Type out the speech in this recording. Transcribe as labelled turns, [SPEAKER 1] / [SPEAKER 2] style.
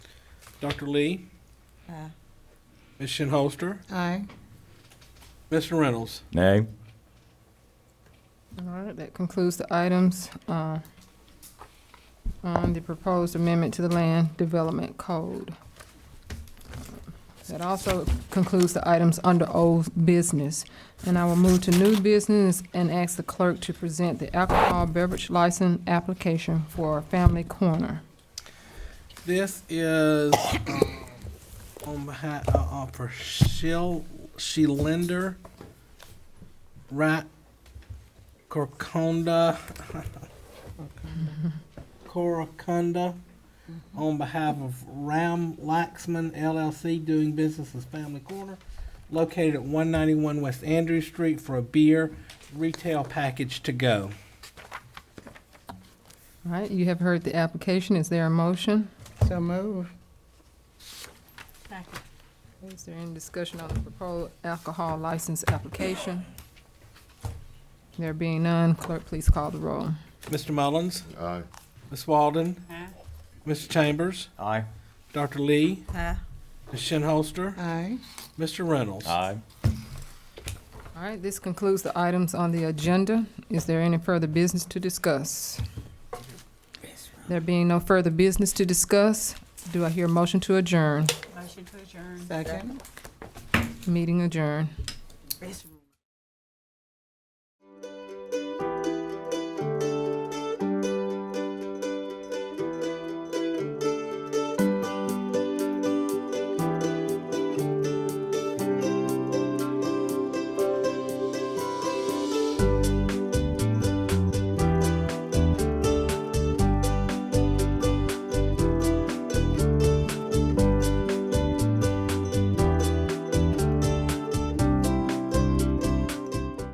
[SPEAKER 1] Dr. Lee,
[SPEAKER 2] Aye.
[SPEAKER 1] Ms. Shinholster,
[SPEAKER 2] Aye.
[SPEAKER 1] Mr. Reynolds.
[SPEAKER 3] Nay.
[SPEAKER 4] All right, that concludes the items uh, on the proposed amendment to the Land Development Code. That also concludes the items under old business. And I will move to new business and ask the clerk to present the alcohol beverage license application for Family Corner.
[SPEAKER 1] This is um, on behalf uh, uh, for Shil Shelinder Rat Corconda Coracunda on behalf of Ram Laxman LLC doing business as Family Corner located at 191 West Andrews Street for a beer retail package to go.
[SPEAKER 4] All right, you have heard the application. Is there a motion?
[SPEAKER 2] So move.
[SPEAKER 4] Is there any discussion on the proposed alcohol license application? There being none, clerk, please call the roll.
[SPEAKER 1] Mr. Mullins,
[SPEAKER 5] Aye.
[SPEAKER 1] Ms. Walden, Mr. Chambers,
[SPEAKER 3] Aye.
[SPEAKER 1] Dr. Lee,
[SPEAKER 2] Aye.
[SPEAKER 1] Ms. Shinholster,
[SPEAKER 2] Aye.
[SPEAKER 1] Mr. Reynolds.
[SPEAKER 3] Aye.
[SPEAKER 4] All right, this concludes the items on the agenda. Is there any further business to discuss? There being no further business to discuss, do I hear a motion to adjourn?
[SPEAKER 2] Motion to adjourn. Second.
[SPEAKER 4] Meeting adjourned.
[SPEAKER 2] It's